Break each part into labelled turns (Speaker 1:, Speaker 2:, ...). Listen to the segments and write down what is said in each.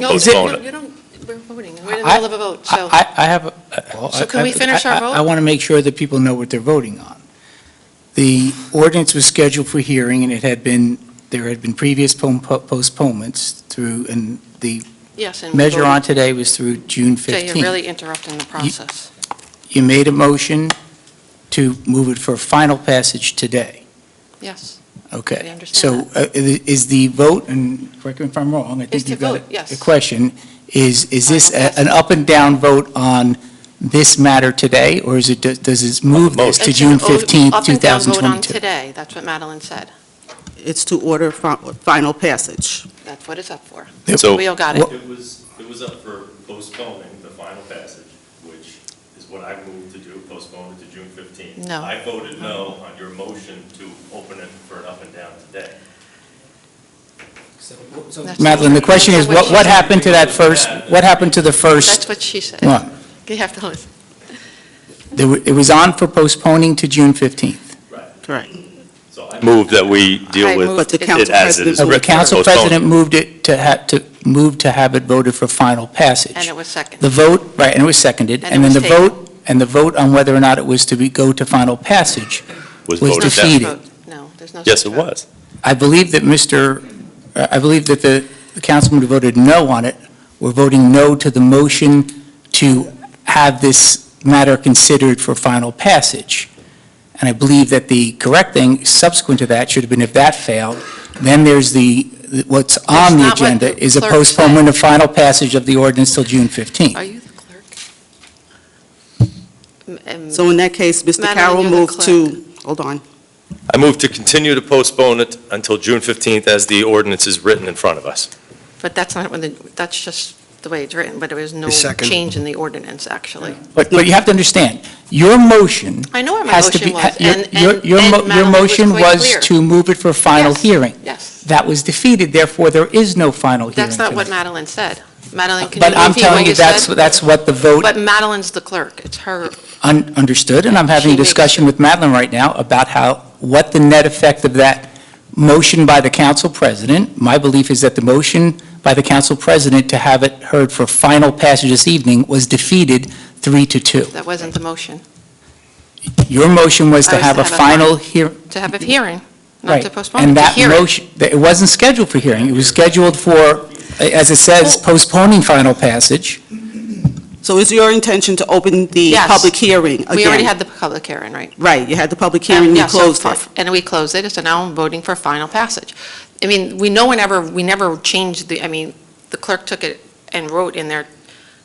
Speaker 1: No, you
Speaker 2: postpone
Speaker 1: don't-
Speaker 2: it.
Speaker 1: you don't, we're voting, we're in the
Speaker 3: I-
Speaker 1: middle of a vote, so.
Speaker 3: I, I I have. a- uh,
Speaker 1: So can we finish our
Speaker 3: I- I-
Speaker 1: vote?
Speaker 3: I want to make sure that people know what they're voting on. The ordinance was scheduled for hearing, and it had been, there had been previous pon- po- postponements through, and the
Speaker 1: Yes, and. we
Speaker 3: measure
Speaker 1: voted.
Speaker 3: on today was through June
Speaker 1: Jay, you're
Speaker 3: 15th.
Speaker 1: really interrupting the process.
Speaker 3: You made a motion to move it for final passage today,
Speaker 1: Yes,
Speaker 3: okay?
Speaker 1: We understand
Speaker 3: So uh, i- is the vote, and correct me if I'm wrong, I
Speaker 1: It's
Speaker 3: think
Speaker 1: to
Speaker 3: you've got
Speaker 1: vote,
Speaker 3: it.
Speaker 1: yes. Uh-huh.
Speaker 3: The question is, is this
Speaker 1: Final
Speaker 3: a- an up and down vote on this matter today, or is it, does- does this move this to
Speaker 1: It's an
Speaker 3: June
Speaker 1: o-
Speaker 3: 15th,
Speaker 1: Up and down vote on
Speaker 3: 2022?
Speaker 1: today, that's what Madeline said.
Speaker 4: It's to order fi- final passage.
Speaker 1: That's what it's up for.
Speaker 3: Yep.
Speaker 2: So-
Speaker 1: We all got it.
Speaker 3: Well-
Speaker 5: It was, it was up for postponing the final passage, which is what I moved to do, postpone it to June 15th.
Speaker 1: No.
Speaker 5: I voted no on your motion to open it for an up and down today.
Speaker 1: That's-
Speaker 3: Madeline, the question is, what what happened to that first, what happened to the
Speaker 1: That's
Speaker 3: first
Speaker 1: what she said.
Speaker 3: one?
Speaker 1: You have to listen.
Speaker 3: There wa- It was on for postponing to June 15th.
Speaker 4: Correct.
Speaker 5: So I moved that we
Speaker 1: I
Speaker 5: deal with
Speaker 1: moved
Speaker 4: But the
Speaker 1: it-
Speaker 4: council
Speaker 5: it as it
Speaker 4: president
Speaker 5: is
Speaker 3: So
Speaker 5: written.
Speaker 3: the council
Speaker 5: postpone.
Speaker 3: president moved it to, ha- to, moved to have it voted for final passage.
Speaker 1: And it was second.
Speaker 3: The vote, right, and it was seconded,
Speaker 1: And it
Speaker 3: and then
Speaker 1: was
Speaker 3: the
Speaker 1: tabled.
Speaker 3: vote, and the vote on whether or not it was to be, go to final passage.
Speaker 5: Was
Speaker 3: was
Speaker 1: No
Speaker 5: voted
Speaker 1: such
Speaker 3: defeated.
Speaker 5: down.
Speaker 1: vote. No, there's no.
Speaker 5: Yes,
Speaker 1: such
Speaker 5: it
Speaker 1: vote.
Speaker 5: was.
Speaker 3: I believe that Mr., uh, I believe that the the councilman who voted no on it were voting no to the motion to have this matter considered for final passage. And I believe that the correct thing subsequent to that should have been if that failed, then there's the, what's on the
Speaker 1: not what
Speaker 3: agenda
Speaker 1: the
Speaker 3: is a
Speaker 1: clerk said.
Speaker 3: postponement of final passage of the ordinance till June 15th.
Speaker 1: Are you the clerk? M- um,
Speaker 4: So in that case, Mr.
Speaker 1: Madeline,
Speaker 4: Carroll
Speaker 1: you're the
Speaker 4: moved to, hold on,
Speaker 5: I moved to continue to postpone it until June 15th as the ordinance is written in front of us.
Speaker 1: But that's not, when the that's just the way it's written, but there was no
Speaker 6: The second.
Speaker 1: change in the ordinance, actually.
Speaker 3: But, but you have to understand, your motion
Speaker 1: I know what my
Speaker 3: has to be.
Speaker 1: motion was,
Speaker 3: your-
Speaker 1: and,
Speaker 3: your-
Speaker 1: and
Speaker 3: your
Speaker 1: and
Speaker 3: mo- Your
Speaker 1: Madeline was
Speaker 3: motion
Speaker 1: quite
Speaker 3: was
Speaker 1: clear.
Speaker 3: to move it for final
Speaker 1: Yes.
Speaker 3: hearing.
Speaker 1: Yes,
Speaker 3: That was defeated, therefore there is no final hearing.
Speaker 1: that's not what
Speaker 3: tonight.
Speaker 1: Madeline said. Madeline, can
Speaker 3: But
Speaker 1: you
Speaker 3: I'm
Speaker 1: repeat what
Speaker 3: telling
Speaker 1: you
Speaker 3: you, that's,
Speaker 1: said?
Speaker 3: that's what the vote
Speaker 1: But Madeline's the clerk, it's her,
Speaker 3: un- understood, and I'm having
Speaker 1: She
Speaker 3: a
Speaker 1: makes-
Speaker 3: discussion with Madeline right now about how, what the net effect of that motion by the council president. My belief is that the motion by the council president to have it heard for final passage this evening was defeated three to two.
Speaker 1: that wasn't the motion,
Speaker 3: Your motion was
Speaker 1: I
Speaker 3: to
Speaker 1: was
Speaker 3: have a final hearing.
Speaker 1: to have a hearing, not
Speaker 3: Right,
Speaker 1: to postpone,
Speaker 3: And
Speaker 1: to
Speaker 3: that
Speaker 1: hear it.
Speaker 3: motion, that- it wasn't scheduled for hearing, it was scheduled for, as it says, postponing final passage.
Speaker 4: so is your intention to open the
Speaker 1: Yes.
Speaker 4: public hearing again?
Speaker 1: We already had the public hearing, right?
Speaker 4: Right, you had the public hearing, you
Speaker 1: Yeah, so
Speaker 4: closed
Speaker 1: for-
Speaker 4: it.
Speaker 1: And we closed it, so now I'm voting for final passage. I mean, we no one ever, we never changed the, I mean, the clerk took it and wrote in there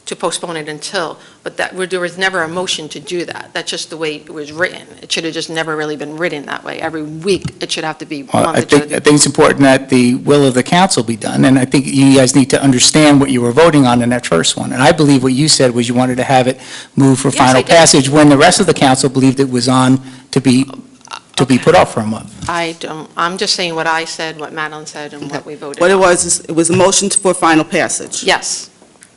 Speaker 1: to postpone it until, but that, there was never a motion to do that. That's just the way it was written. It should have just never really been written that way. Every week, it should have to be.
Speaker 3: Well, Uh, I
Speaker 1: month-
Speaker 3: think, I think it's important that the will of the council be done, and I think you guys need to understand what you were voting on in that first one. And I believe what you said was you wanted to have it move for
Speaker 1: Yes, I
Speaker 3: final
Speaker 1: did.
Speaker 3: passage, when the rest of the council believed it was on to be, to be put off for a month.
Speaker 1: I don't, I'm just saying what I said, what Madeline said, and what we voted
Speaker 4: What it
Speaker 1: on.
Speaker 4: was, is it was a motion for final passage,
Speaker 1: Yes,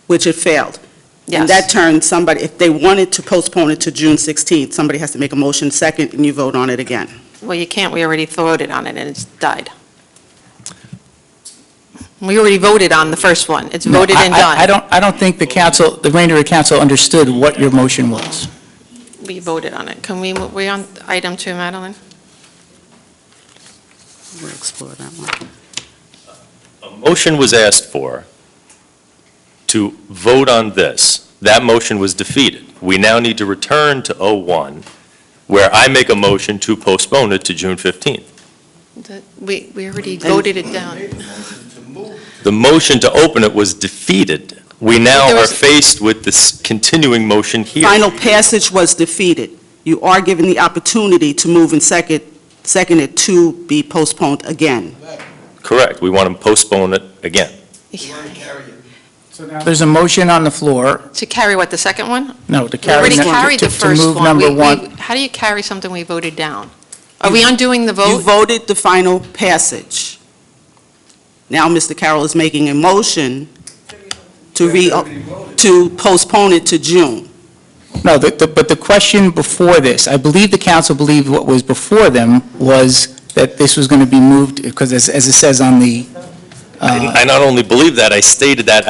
Speaker 4: which it failed. In that
Speaker 1: yes.
Speaker 4: turn, somebody, if they wanted to postpone it to June 16th, somebody has to make a motion second, and you vote on it again.
Speaker 1: Well, you can't, we already voted on it, and it's died. We already voted on the first one. It's
Speaker 3: No,
Speaker 1: voted
Speaker 3: I-
Speaker 1: and
Speaker 3: I-
Speaker 1: done.
Speaker 3: I don't, I don't think the council, the Randall Council understood what your motion was.
Speaker 1: We voted on it. Can we, mo- we on item two, Madeline?
Speaker 4: We'll explore that one.
Speaker 5: A motion was asked for to vote on this. That motion was defeated. We now need to return to 01, where I make a motion to postpone it to June 15th.
Speaker 1: That- We, we already voted it down.
Speaker 5: The motion to open it was defeated. We now
Speaker 1: There
Speaker 5: are
Speaker 1: was-
Speaker 5: faced with this continuing motion here.
Speaker 4: Final passage was defeated. You are given the opportunity to move and second, second it to be postponed again.
Speaker 5: Correct. We want to postpone it again.
Speaker 3: There's a motion on the floor,
Speaker 1: To carry what, the second one?
Speaker 3: no, to
Speaker 1: We
Speaker 3: carry,
Speaker 1: already
Speaker 3: ne-
Speaker 1: carried
Speaker 3: to
Speaker 1: the
Speaker 3: to
Speaker 1: first one.
Speaker 3: move number
Speaker 1: We- we-
Speaker 3: one.
Speaker 1: How do you carry something we voted down? Are we undoing the
Speaker 4: You
Speaker 1: vote?
Speaker 4: voted the final passage. Now Mr. Carroll is making a motion to re, to postpone it to June.
Speaker 3: No, the- the- but the question before this, I believe the council believed what was before them was that this was going to be moved, because as as it says on the... uh,
Speaker 5: I not only believe that, I stated that